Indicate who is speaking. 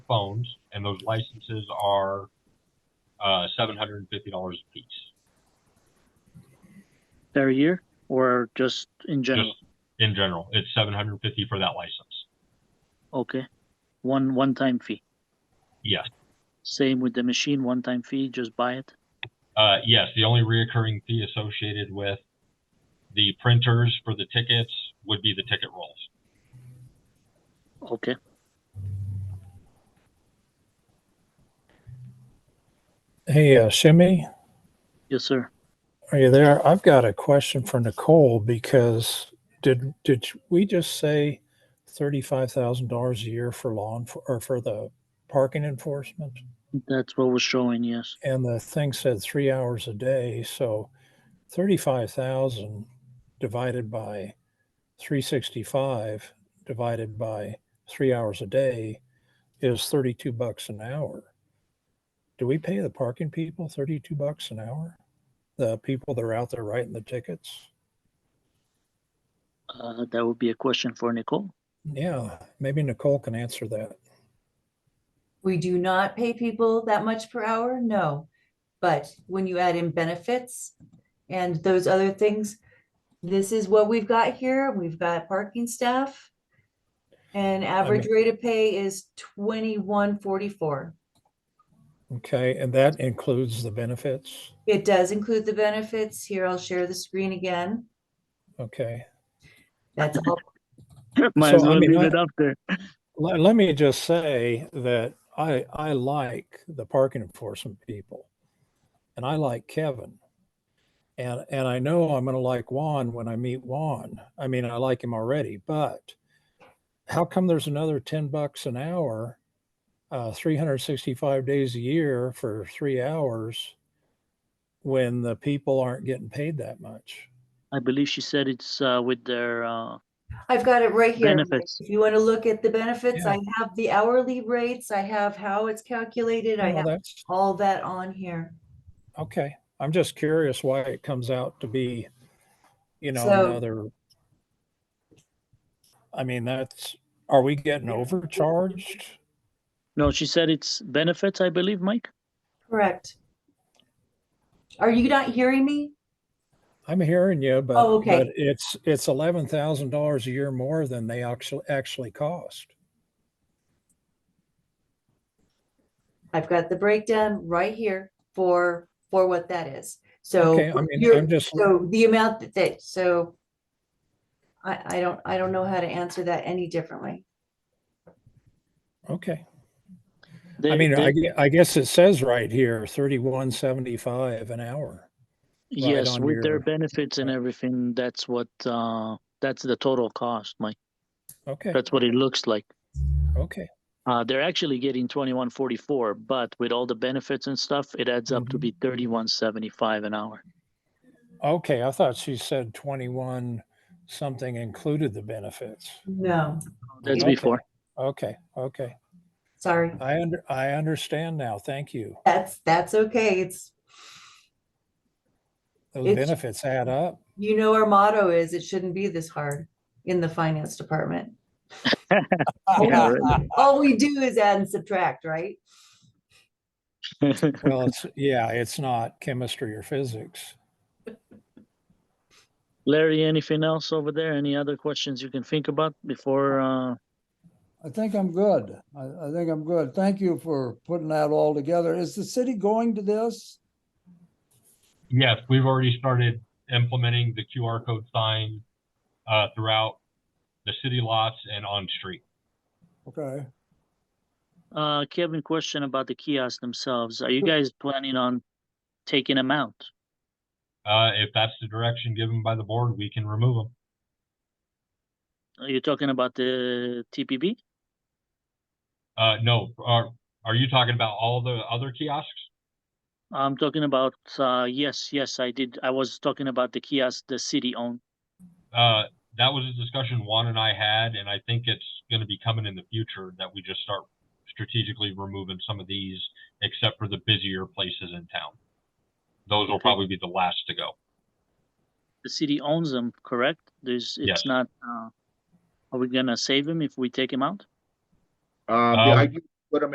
Speaker 1: phones, and those licenses are uh, seven hundred and fifty dollars a piece.
Speaker 2: per year or just in general?
Speaker 1: Just in general, it's seven hundred and fifty for that license.
Speaker 2: Okay. One one time fee.
Speaker 1: Yes,
Speaker 2: Same with the machine, one time fee, just buy it.
Speaker 1: uh, yes. The only reoccurring fee associated with the printers for the tickets would be the ticket rolls.
Speaker 2: Okay.
Speaker 3: Hey, uh, Shimmy,
Speaker 2: Yes, sir.
Speaker 3: are you there? I've got a question for Nicole because did did we just say thirty-five thousand dollars a year for law enfor- or for the parking enforcement?
Speaker 2: That's what was showing, yes.
Speaker 3: And the thing said three hours a day, so thirty-five thousand divided by three sixty-five divided by three hours a day is thirty-two bucks an hour. Do we pay the parking people thirty-two bucks an hour? The people that are out there writing the tickets?
Speaker 2: Uh, that would be a question for Nicole.
Speaker 3: Yeah, maybe Nicole can answer that.
Speaker 4: We do not pay people that much per hour, no. But when you add in benefits and those other things, this is what we've got here. We've got parking staff. And average rate of pay is twenty-one forty-four.
Speaker 3: Okay, and that includes the benefits.
Speaker 4: It does include the benefits. Here, I'll share the screen again.
Speaker 3: Okay.
Speaker 4: That's all.
Speaker 2: Might
Speaker 3: So,
Speaker 2: as
Speaker 3: I
Speaker 2: well
Speaker 3: mean,
Speaker 2: leave
Speaker 3: I-
Speaker 2: it up there.
Speaker 3: Let, let me just say that I I like the parking enforcement people, and I like Kevin, and and I know I'm going to like Juan when I meet Juan. I mean, I like him already, but how come there's another ten bucks an hour, uh, 365 days a year for three hours, when the people aren't getting paid that much?
Speaker 2: I believe she said it's uh, with their uh,
Speaker 4: I've got it right here.
Speaker 2: Benefits.
Speaker 4: If you want to look at the benefits,
Speaker 3: Yeah.
Speaker 4: I have the hourly rates. I have how it's calculated. I
Speaker 3: Well,
Speaker 4: have
Speaker 3: that's
Speaker 4: all that on here.
Speaker 3: okay. I'm just curious why it comes out to be, you know,
Speaker 4: So-
Speaker 3: another. I mean, that's, are we getting overcharged?
Speaker 2: no, she said it's benefits, I believe, Mike.
Speaker 4: Correct. Are you not hearing me?
Speaker 3: I'm hearing you, but.
Speaker 4: Oh, okay.
Speaker 3: but It's, it's eleven thousand dollars a year more than they actually, actually cost.
Speaker 4: I've got the breakdown right here for, for what that is. So
Speaker 3: Okay, I mean,
Speaker 4: you're-
Speaker 3: I'm just,
Speaker 4: so the amount that they, so I, I don't, I don't know how to answer that any differently.
Speaker 3: okay.
Speaker 2: They,
Speaker 3: I mean, I,
Speaker 2: they-
Speaker 3: gue- I guess it says right here, thirty-one seventy-five an hour.
Speaker 2: yes,
Speaker 3: on
Speaker 2: with their
Speaker 3: your-
Speaker 2: benefits and everything, that's what uh, that's the total cost, Mike.
Speaker 3: Okay,
Speaker 2: That's what it looks like.
Speaker 3: okay,
Speaker 2: Uh, they're actually getting twenty-one forty-four, but with all the benefits and stuff, it adds up to
Speaker 3: Mhm.
Speaker 2: be thirty-one seventy-five an hour.
Speaker 3: okay. I thought she said twenty-one something included the benefits.
Speaker 4: No,
Speaker 2: That's
Speaker 3: Okay.
Speaker 2: before.
Speaker 3: Okay, okay.
Speaker 4: sorry.
Speaker 3: I under, I understand now. Thank you.
Speaker 4: That's, that's okay. It's,
Speaker 3: Those
Speaker 4: It's-
Speaker 3: benefits add up.
Speaker 4: you know, our motto is it shouldn't be this hard in the finance department.
Speaker 2: Yeah,
Speaker 4: All we do is add and subtract, right?
Speaker 3: Well, it's, yeah, it's not chemistry or physics.
Speaker 2: Larry, anything else over there? Any other questions you can think about before? Uh,
Speaker 5: I think I'm good. I, I think I'm good. Thank you for putting that all together. Is the city going to this?
Speaker 1: Yes, we've already started implementing the QR code sign uh, throughout the city lots and on street.
Speaker 5: Okay.
Speaker 2: uh, Kevin, question about the kiosks themselves. Are you guys planning on taking them out?
Speaker 1: Uh, if that's the direction given by the board, we can remove them.
Speaker 2: Are you talking about the TPB?
Speaker 1: Uh, no, are, are you talking about all the other kiosks?
Speaker 2: I'm talking about, uh, yes, yes, I did. I was talking about the kiosk the city owned.
Speaker 1: Uh, that was a discussion Juan and I had, and I think it's gonna be coming in the future that we just start strategically removing some of these, except for the busier places in town. Those will
Speaker 2: Okay.
Speaker 1: probably be the last to go.
Speaker 2: The city owns them, correct? There's, it's
Speaker 1: Yes.
Speaker 2: not, uh, are we gonna save them if we take them out?
Speaker 6: Um, yeah, I
Speaker 1: Um,
Speaker 6: give